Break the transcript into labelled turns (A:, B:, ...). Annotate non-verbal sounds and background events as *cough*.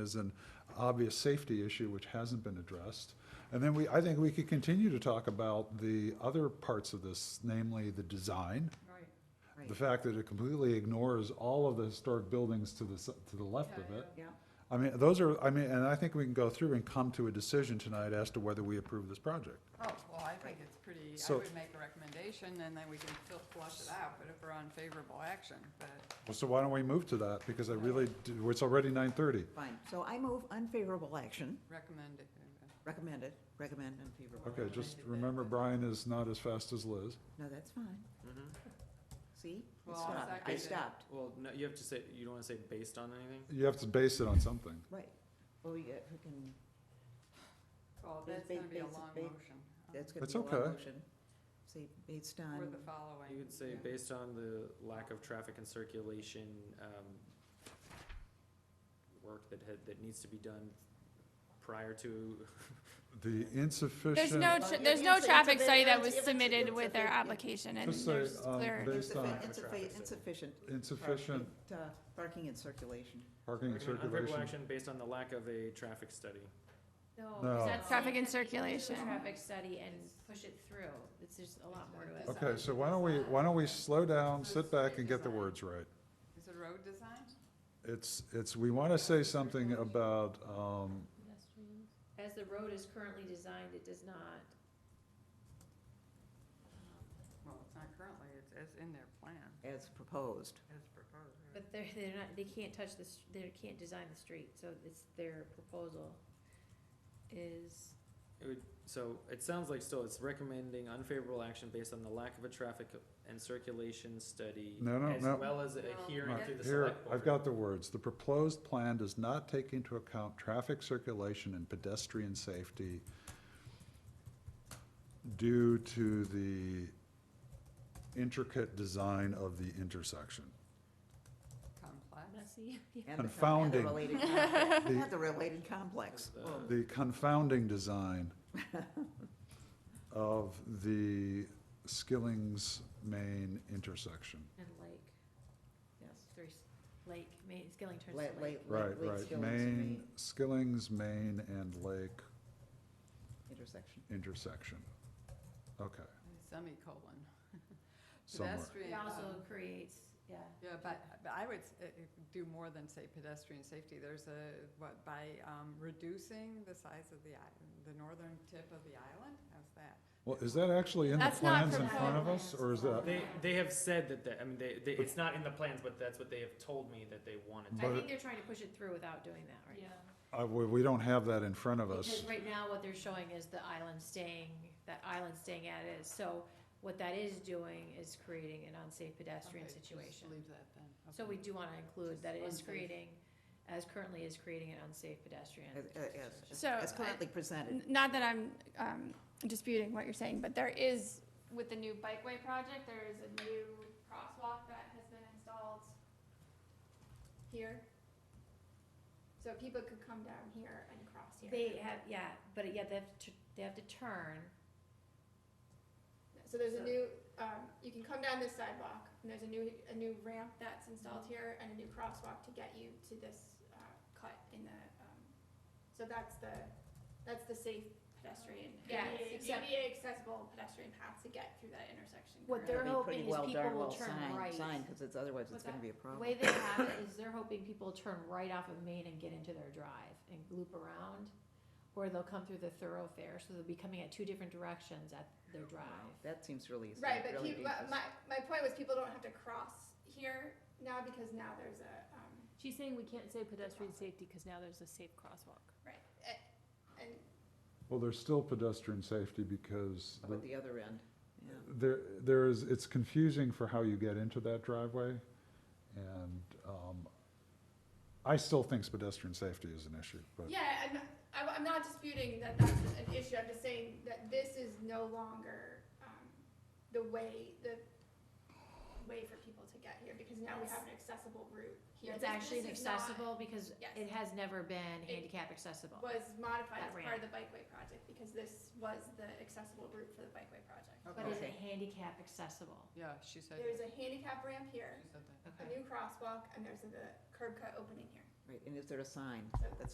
A: is an obvious safety issue which hasn't been addressed. And then we, I think we could continue to talk about the other parts of this, namely the design. The fact that it completely ignores all of the historic buildings to the, s- to the left of it.
B: Yeah,
A: I mean, those are, I mean, and I think we can go through and come to a decision tonight as to whether we approve this project.
C: Oh, well, I think it's pretty, I
A: So-
C: would make a recommendation, and then we can fil- flush it out, but if we're on favorable action, but,
A: Well, So why don't we move to that? Because I really, do- it's already nine thirty.
B: fine. So I move unfavorable action,
C: recommend it. uh,
B: recommended, recommend unfavorable.
A: Okay, just remember Brian is not as fast as Liz.
B: No, that's fine. See? I
C: Well, I'll
B: stopped. I
C: second it.
B: stopped,
D: Mm-hmm. Well, no, you have to say, you don't wanna say based on anything?
A: You have to base it on something.
B: right. Well, yeah, we can,
C: Well,
B: Ba-
C: that's
B: ba-
C: gonna be a
B: basi-
C: long
B: ba-
C: motion. uh,
B: that's
A: That's
B: gonna be a
A: okay.
B: long motion. Say, based
C: Or
B: on,
C: the following.
D: You could say
C: yeah.
D: based on the lack of traffic and circulation, um, work that had, that needs to be done prior to,
A: The insufficient.
E: There's no,
B: Well,
E: tr-
B: you
E: there's
B: can
E: no
B: say it's a
E: traffic
B: bit-
E: study that
B: it's
E: was
B: a- it's a-
E: submitted
B: it's a
E: with their
B: bit- yeah.
E: application and
A: Just say,
E: there's
A: um,
E: clear.
A: they- Based on-
B: insuffi- insuffi- insufficient.
A: Insufficient
B: uh, Parking and circulation.
D: *laughs*
A: parking and
D: Recommend unfavorable
A: circulation.
D: action based on the lack of a traffic study.
A: No.
F: No.
A: That's
E: traffic and
F: and
E: circulation.
F: Traffic study and push it through. It's just a lot more to it.
A: Okay, so why don't we, why don't we slow down, sit back and get the words right?
C: Is it road design?
A: It's, it's, we want to say something about, um,
F: As the road is currently designed, it does not.
C: Well, it's not currently, it's, it's in their plan,
B: As proposed.
C: as proposed. right?
F: But they're, they're not, they can't touch the, s- they can't design the street, so it's their proposal is,
D: It would, so it sounds like still it's recommending unfavorable action based on the lack of a traffic and circulation study.
A: No, no, no.
D: As well as
C: No.
D: adhering
A: Right,
D: to the
A: Here,
D: select
A: I've
D: board.
A: got the words. The proposed plan does not take into account traffic circulation and pedestrian safety due to the intricate design of the intersection.
C: Complex.
F: *laughs* messy.
B: and the- and the
A: Confounding.
B: related complex-
A: The-
B: and The related complex.
D: The-
B: Well,
A: The confounding design of the Skilling's main intersection.
F: And lake,
B: yes.
F: there's lake, main, Skilling turns
B: Late,
F: to
B: late,
F: lake.
B: late,
A: Right,
B: late
A: right.
B: Skilling's
A: Main,
B: Main
A: Skilling's main and lake
B: intersection.
A: intersection. Okay,
C: And Semicolon.
A: somewhere.
F: It
C: Pedestrian.
F: also
C: um,
F: creates, yeah.
C: Yeah, but, but I would s- uh, uh, do more than say pedestrian safety. There's a, what, by um, reducing the size of the, i- the northern tip of the island? How's that?
A: Well, is that actually in the
E: That's not
A: plans in front of us,
F: proposed.
A: or is that?
D: They, they have said that, that, I mean, they, they, it's not in the plans, but that's what they have told me that they wanted.
F: I
A: But-
F: think they're trying to push it through without doing that right now.
A: Uh, we, we don't have that in front of us.
F: Because right now, what they're showing is the island staying, that island staying at it is, so what that is doing is creating an unsafe pedestrian
C: Okay, just
F: situation.
C: Leave that then.
F: So we do wanna include that it is
C: Unsafe.
F: creating, as currently is creating an unsafe pedestrian.
B: As-
A: Uh,
B: uh, as- as-
E: So,
B: As
E: I-
B: currently presented.
E: Not that I'm um, disputing what you're saying, but there is, with the new bikeway project, there is a new crosswalk that has been installed here. So people could come down here and cross here.
F: They have, yeah, but yeah, they have to, they have to turn,
E: So there's a
F: So-
E: new, um, you can come down this sidewalk, and there's a new, a new ramp that's installed here, and a new crosswalk to get you to this, uh, cut in the, um, so that's the, that's the safe pedestrian.
F: Yeah, it's accept-
E: ADA accessible pedestrian path to get through that intersection.
F: What
E: correct?
F: they're
B: It'll be pretty
F: hoping is
B: well
F: people
B: darn
F: will
B: well
F: turn
B: signed-
F: right.
B: Signed, because it's, otherwise it's
F: What's
B: gonna
F: that?
B: be a
F: the
A: Oh.
B: problem.
F: way they have it is they're hoping people turn right off of Main and get into their drive and loop around, or they'll come through the thoroughfare, so they'll be coming at two different directions at their drive.
B: That seems really,
E: Right, but
B: really
F: uh,
E: people, my,
B: dangerous.
E: my point was people don't have to cross here now because now there's a, um,
G: She's saying we can't say pedestrian safety because now there's a safe crosswalk.
E: right, a- and
A: Well, there's still pedestrian safety because
B: Up
A: the-
B: at the other end, yeah.
A: there, there is, it's confusing for how you get into that driveway. And, um, I still think pedestrian safety is an issue, but
E: Yeah, I'm, I- I'm not disputing that that's an issue, I'm just saying that this is no longer, um, the way, the way for people to get here, because now we have an accessible route here.
F: It's
E: This-
F: actually
E: this is not-
F: inaccessible because
E: Yes.
F: it has never been
E: It
F: handicap accessible.
E: Was modified as
F: That
E: part of the bikeway project, because this was the accessible route for the bikeway project.
F: But is
B: Okay.
F: it handicap accessible?
C: Yeah, she said,
E: There's a handicap ramp here,
C: she said that.
E: a new crosswalk, and there's the curb cut opening here.
B: Right, and is there a sign? That's